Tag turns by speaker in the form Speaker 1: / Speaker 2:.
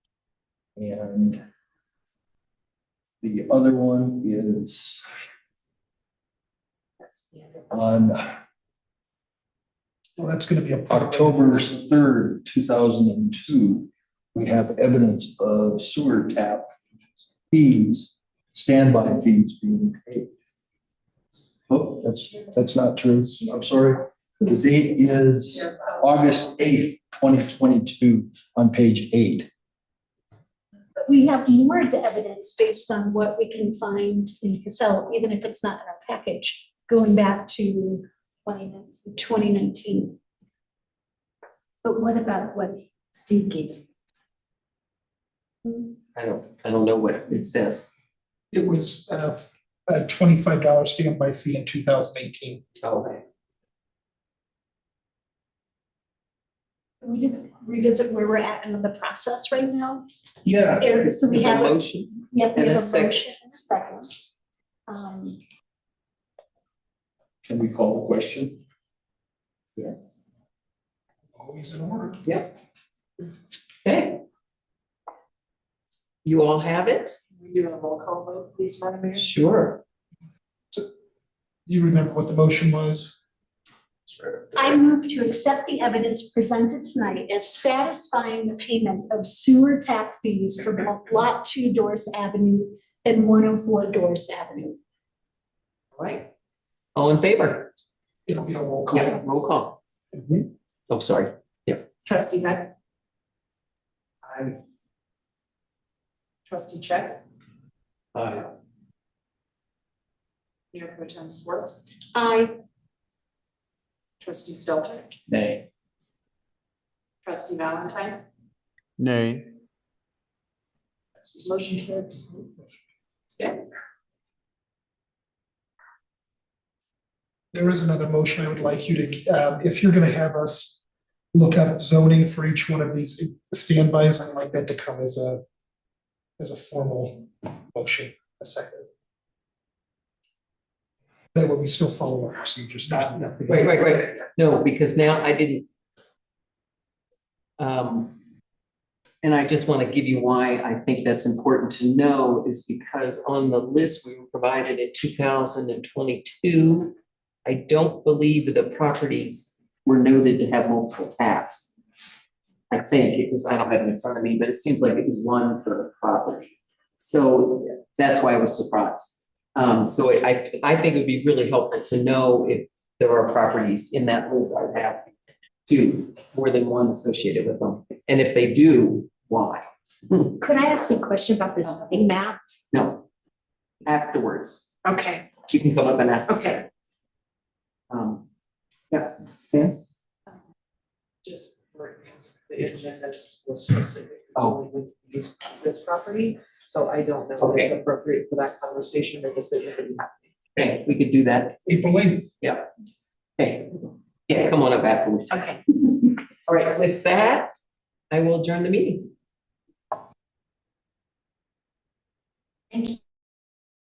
Speaker 1: And the other one is
Speaker 2: That's the other.
Speaker 1: on
Speaker 3: Um,
Speaker 4: Well, that's gonna be a.
Speaker 1: October third, two thousand and two, we have evidence of sewer tap fees, standby fees being paid. Oh, that's, that's not true. I'm sorry. The date is August eighth, twenty twenty-two, on page eight.
Speaker 5: But we have more evidence based on what we can find in Casella, even if it's not in our package, going back to 2019 2019. But what about what Steve gave? Hmm,
Speaker 3: I don't, I don't know what it says.
Speaker 4: It was uh, a twenty-five dollar standby fee in two thousand eighteen.
Speaker 3: Okay.
Speaker 5: Can we just revisit where we're at in the process right now?
Speaker 4: Yeah.
Speaker 5: There- So we have, a-
Speaker 3: Motion.
Speaker 5: yeah, we
Speaker 3: and a
Speaker 5: have a
Speaker 3: second.
Speaker 5: motion and a second. Um,
Speaker 1: Can we call a question?
Speaker 3: Yes.
Speaker 4: Always in order.
Speaker 3: Yep. Okay. You all have it?
Speaker 2: We do a roll call vote, please, Madam Mayor.
Speaker 3: Sure.
Speaker 4: Do you remember what the motion was?
Speaker 5: I move to accept the evidence presented tonight as satisfying the payment of sewer tap fees for both Lot 2 Doris Avenue and 104 Doris Avenue.
Speaker 3: All Right. All in favor?
Speaker 4: It'll be a roll call.
Speaker 3: Yeah, roll call. Oh, sorry.
Speaker 2: Trustee Heck. Aye. Trustee Check.
Speaker 3: Uh,
Speaker 1: Aye.
Speaker 2: Mayor Pro Tem Swartz.
Speaker 5: I,
Speaker 2: Trustee Stelter.
Speaker 3: Nay.
Speaker 2: Trustee Valentine.
Speaker 6: Nay.
Speaker 2: Motion carries.
Speaker 4: There is another motion I would like you to, uh, if you're gonna have us look up zoning for each one of these standbys, I'd like that to come as a, as a formal motion, a second. That way we still follow our procedures, not nothing.
Speaker 3: Right, right, right. No, because now I didn't. Um. And I just want to give you why I think that's important to know is because on the list we were provided in two thousand and twenty-two. I don't believe that the properties were noted to have multiple taps. I think it was, I don't have it in front of me, but it seems like it was one per property. So that's why I was surprised. Um, so I, I think it would be really helpful to know if there are properties in that list that have two, more than one associated with them. And if they do, why?
Speaker 5: could I ask you a question about this map?
Speaker 3: No. Afterwards,
Speaker 2: Okay,
Speaker 3: you can come up and ask. us.
Speaker 2: okay.
Speaker 3: Um, yeah, Sam?
Speaker 2: Just because the agenda was specific only
Speaker 3: Oh.
Speaker 2: with these- this property, so I don't know if it's
Speaker 3: Okay.
Speaker 2: appropriate for that conversation or decision to be had.
Speaker 3: Thanks, we could do that.
Speaker 4: April eighth.
Speaker 3: Hey, yeah, come on up afterwards.
Speaker 2: Okay.
Speaker 3: All right, with that, I will adjourn the meeting.
Speaker 5: Thank